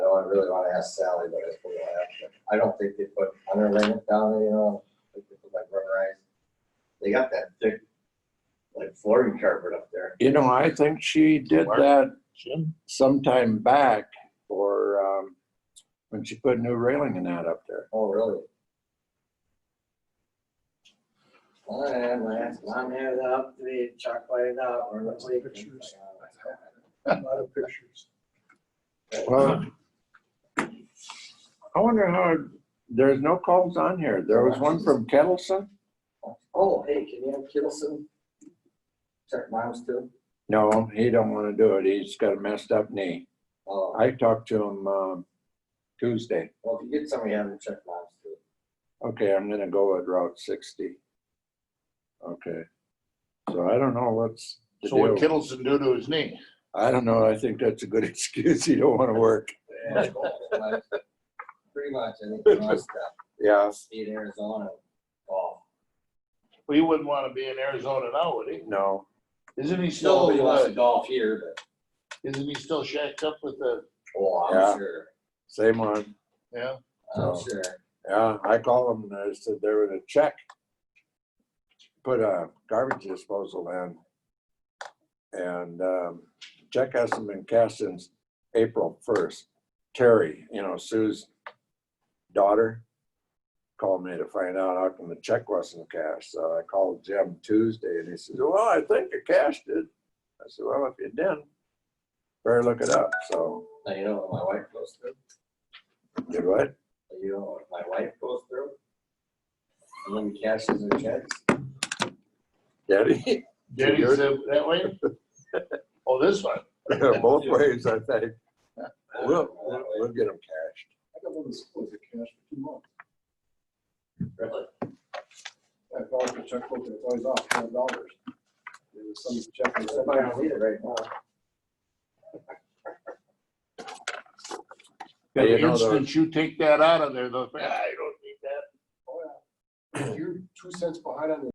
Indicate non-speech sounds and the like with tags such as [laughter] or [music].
really want to ask Sally, but I think we'll have to. I don't think they put underlayment down, there, you know, I think they put like rubberized. They got that thick, like flooring carpet up there. You know, I think she did Mark? that Jim? sometime back or, um, when she put new railing and that up there. Oh, really? Well, I'm, I'm here up to be chocolate out or Lots the of weekend. pictures. A lot of pictures. Well, I wonder how, there's no calls on here. There was one from Kettleson? Oh, hey, can you have Kittleson? Check miles too? No, he don't want to do it. He's got a messed up knee. Oh, I talked to him, um, Tuesday. well, if you get somebody, have them check miles too. Okay, I'm gonna go with Route sixty. Okay. So I don't know what's the So what deal. Kittleson do to his knee? I don't know. I think that's a good [laughs] excuse. You don't want to work. Pretty much, I think, most stuff, Yeah. be in Arizona, golf. Well, he wouldn't want to be in Arizona now, would he? No, Isn't he Nobody still, wants uh, to golf here, but, isn't he still shacked up with the, oh, Yeah. I'm sure, same one. yeah? I'm No. sure. Yeah, I called them and I said there was a check. Put a garbage disposal in. And, um, check hasn't been cashed since April first. Terry, you know, Sue's daughter called me to find out how come the check wasn't cashed. So I called Jim Tuesday and he says, well, I think I cashed it. I said, well, if you didn't, better look it up. So, Now, you know what my wife goes through? did what? You know what my wife goes through? And then cashes her checks. Daddy? Did he say that way? [laughs] Oh, this one? [laughs] Both ways, I think. I don't know We'll, that we'll- way. we'll get them cashed. I got one that's supposed to cash for two months. Really? I thought the checkbook was always off twelve dollars. There was some check. that said- Somebody don't need it right now. Yeah, you The know, the- instant you take that out of there, they'll, think, I don't need that. Oh, yeah. You're two cents behind on the